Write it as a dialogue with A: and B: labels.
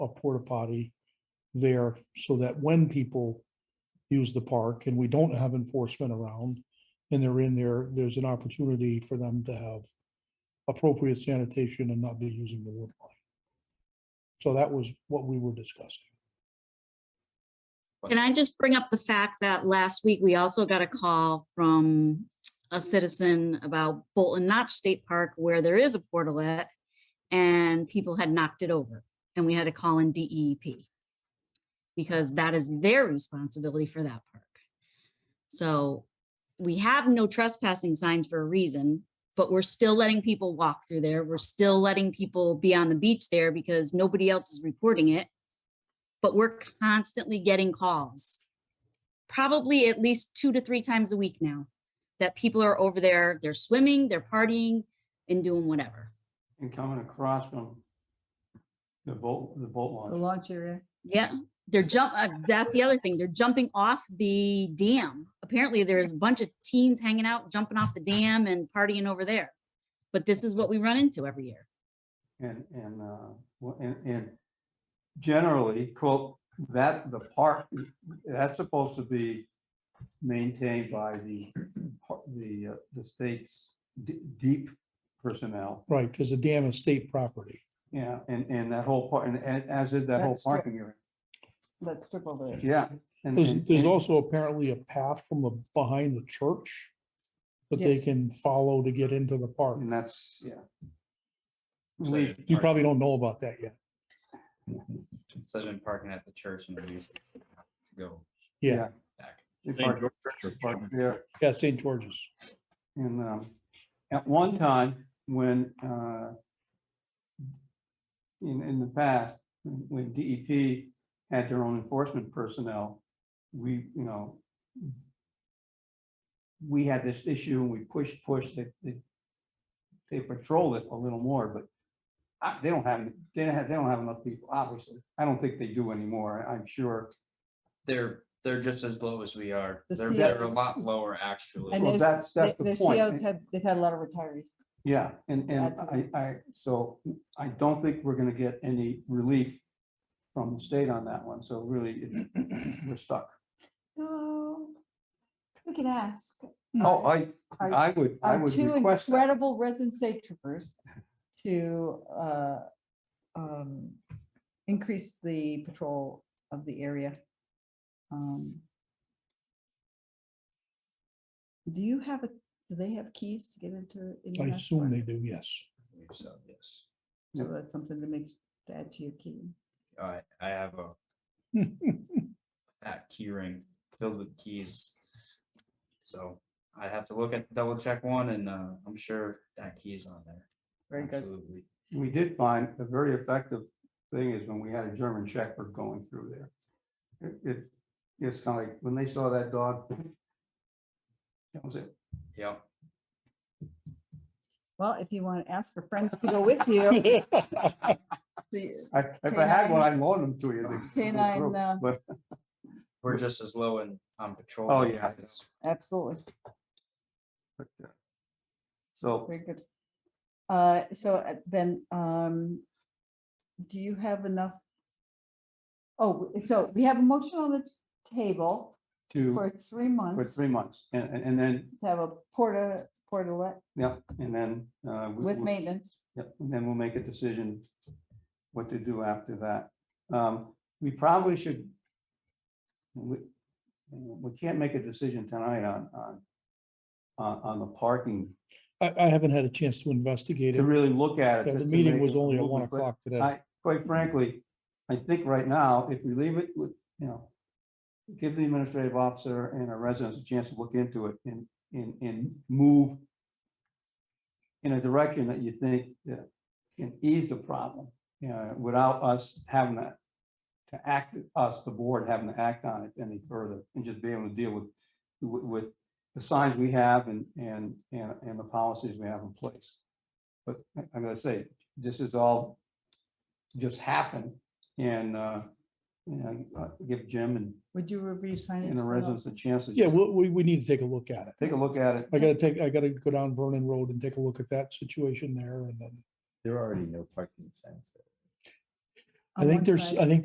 A: a porta potty there so that when people use the park and we don't have enforcement around and they're in there, there's an opportunity for them to have appropriate sanitation and not be using the wood line. So that was what we were discussing.
B: Can I just bring up the fact that last week we also got a call from a citizen about Bolton Notch State Park where there is a portalet and people had knocked it over and we had to call in DEEP because that is their responsibility for that park. So we have no trespassing signs for a reason, but we're still letting people walk through there. We're still letting people be on the beach there because nobody else is reporting it but we're constantly getting calls. Probably at least two to three times a week now that people are over there, they're swimming, they're partying and doing whatever.
C: and coming across from the boat, the boat
D: The
C: launch.
D: launch area.
B: Yeah, they're jump, uh, that's the other thing. They're jumping off the dam. Apparently there's a bunch of teens hanging out, jumping off the dam and partying over there. But this is what we run into every year.
C: And, and, uh, well, and, and generally, quote, that, the park, that's supposed to be maintained by the, par- the, uh, the state's d- deep personnel.
A: Right, because the dam is state property.
C: Yeah, and, and that whole part, and, and as is that whole
D: That's true.
C: parking area.
D: That strip over there.
C: Yeah. and-
A: There's,
C: and-
A: there's
C: and-
A: also apparently a path from the, behind the church that they
D: Yes.
A: can follow to get into the park.
C: And that's, yeah.
E: Such
C: We-
E: as
A: You
E: park-
A: probably don't know about that yet.
E: Such as parking at the church and the music to go
A: Yeah,
E: back.
C: we
F: Saint
C: park-
F: George
C: we
F: Church.
C: park There,
A: yeah, St. George's.
C: And um, at one time, when uh, in, in the past, when DEP had their own enforcement personnel, we, you know, we had this issue and we pushed, pushed, they, they, they patrol it a little more, but I, they don't have, they don't have, they don't have enough people, obviously. I don't think they do anymore, I'm sure.
E: They're, they're just as low as we are.
D: The
E: They're,
D: CO
E: they're a lot lower, actually.
D: And
C: Well,
D: there's,
C: that's- that's
D: the
C: the
D: the
C: point.
D: CEOs have, they've had a lot of retirees.
C: Yeah, and, and I,
D: Absolutely.
C: I, so I don't think we're gonna get any relief from the state on that one, so really, it- we're stuck.
D: No, we can ask.
C: Oh, I,
D: Our-
C: I would, I
D: Our
C: would
D: two
C: request that.
D: incredible resident safe troopers to uh, um, increase the patrol of the area. Um, Do you have, a? do they have keys to get into?
A: I
D: Indianapolis?
A: assume they do, yes.
E: I believe So, yes.
D: So that's something to make, to add to your key.
E: I, I have a, that key ring filled with keys. So I have to look at, double check one and, uh, I'm sure that key is on there.
D: Very good.
E: Absolutely.
C: We did find a very effective thing is when we had a German Shepherd going through there. It- It, it's kind of like, when they saw that dog, that was it.
E: Yep.
D: Well, if you want to ask for friends to go with you, the-
C: I, if I had one,
D: Canine-
C: I'd loan them to you. the- the
D: canine,
C: group,
D: uh,
C: But
E: We're just as low in, on patrol.
C: Oh, yeah.
E: as-
D: absolutely,
C: But, uh, So,
D: very good. Uh, so uh, then, um, do you have enough? Oh, w- so we have a motion on the table
C: to,
D: for three
C: for
D: months to
C: three months, and, and and then,
D: have a porta, portalet
C: yeah, and then. uh, we-
D: with
C: we-
D: maintenance.
C: Yep, and then we'll make a decision what to do after that. Um, we probably should. We, we can't make a decision tonight on, on, on, on the parking,
A: I, I haven't had a chance to investigate
C: to
A: it.
C: really look at it.
A: Yeah,
C: to-
A: The
C: to
A: meeting
C: make
A: was
C: a
A: only at one
C: movement, but
A: o'clock today.
C: I, quite frankly, I think right now, if we leave it with, you know, give the administrative officer and our residents a chance to look into it and, and, and move in a direction that you think that can ease the problem, you know, without us having to to act, us, the board having to act on it any further and just be able to deal with, with, with the signs we have and, and, and, and the policies we have in place. But I- I'm gonna say, this is all just happen and, uh, and uh, give Jim and,
D: Would you review signage?
C: and the residents a chance to
A: Yeah, we, we, we need to take a look at it.
C: take a look at it.
A: I gotta take, I gotta go down Vernon Road and take a look at that situation there and then.
G: There are already no parking signs.
A: I think
D: one
A: there's,
D: side.
A: I think